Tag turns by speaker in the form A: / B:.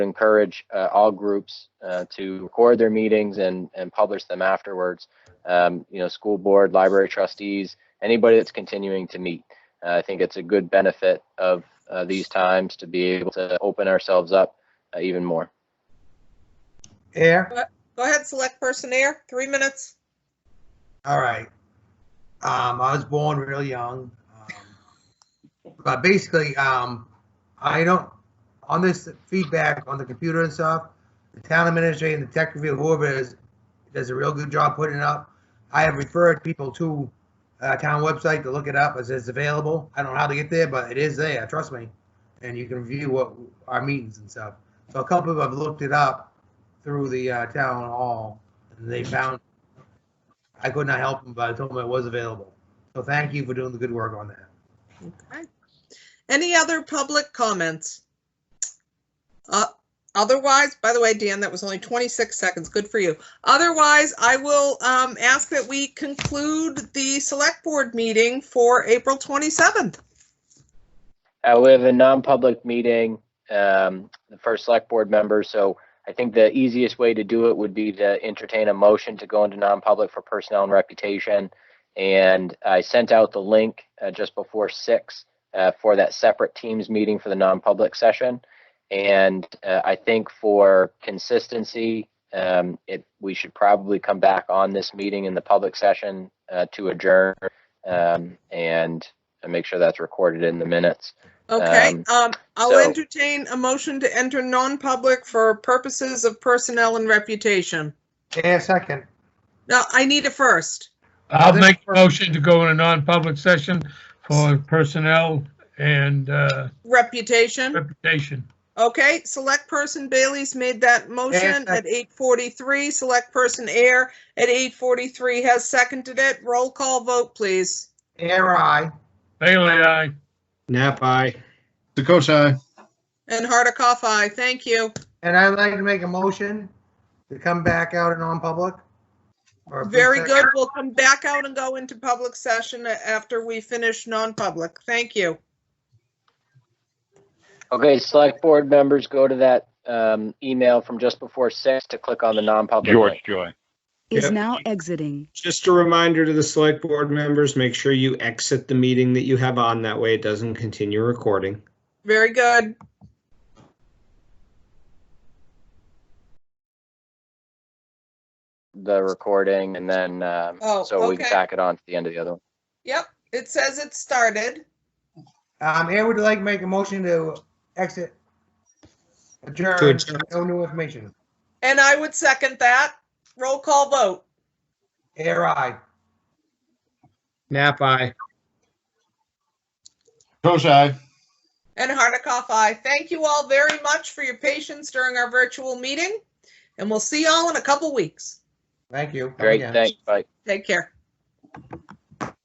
A: encourage uh, all groups uh, to record their meetings and, and publish them afterwards. Um, you know, school board, library trustees, anybody that's continuing to meet. Uh, I think it's a good benefit of uh, these times to be able to open ourselves up uh, even more.
B: Air,
C: Go ahead, select person Air. three minutes.
B: all right. Um, I was born real young. um, But basically, um, I don't, on this feedback on the computer and stuff, the town administrator and the tech review, whoever it is, does a real good job putting it up. I have referred people to uh town website to look it up. It says available. I don't know how to get there, but it is there, trust me. And you can view what our meetings and stuff. So a couple of them have looked it up through the uh, town hall and they found I could not help him, but I told him it was available. So thank you for doing the good work on that.
C: Okay. Any other public comments? Uh, Otherwise, by the way, Dan, that was only 26 seconds. Good for you. Otherwise, I will um, ask that we conclude the select board meeting for April 27th.
A: Uh, we have a non-public meeting, um, the first select board member, so I think the easiest way to do it would be to entertain a motion to go into non-public for personnel and reputation. And I sent out the link, uh, just before six, uh, for that separate teams meeting for the non-public session. And, uh, I think for consistency, um, it, we should probably come back on this meeting in the public session, uh, to adjourn. Um, and and make sure that's recorded in the minutes.
C: Okay, um, I'll
A: so-
C: entertain a motion to enter non-public for purposes of personnel and reputation.
B: Yeah, second.
C: Now, I need a first.
D: I'll make a motion to go in a non-public session for personnel and uh,
C: Reputation.
D: reputation.
C: Okay, select person Bailey's made that motion at eight forty-three, select person Air at eight forty-three has seconded it. Roll call vote, please.
B: Air I.
D: Bailey, aye.
E: Nap eye. Dakota.
C: And Hardikoff, aye. Thank you.
B: And I'd like to make a motion to come back out in non-public. Or if we
C: Very
B: said-
C: good. We'll come back out and go into public session after we finish non-public. Thank you.
A: Okay, select board members, go to that um, email from just before six to click on the non-public
F: George
A: link.
F: Joy.
G: is
E: Yep.
G: now exiting.
E: Just a reminder to the select board members, make sure you exit the meeting that you have on. That way it doesn't continue recording.
C: Very good.
A: The recording and then, um,
C: Oh,
A: so we can
C: okay.
A: tack it on to the end of the other one.
C: Yep, it says it started.
B: Um, Air would like to make a motion to exit.
E: To
B: Adjourn,
E: adjourn.
B: no new information.
C: And I would second that. Roll call vote.
B: Air I.
E: Nap eye.
C: And Hardikoff, aye. Thank you all very much for your patience during our virtual meeting. And we'll see y'all in a couple weeks. Oh,
B: Thank you. Come
A: Great,
B: again.
A: thanks, bye.
C: Take care.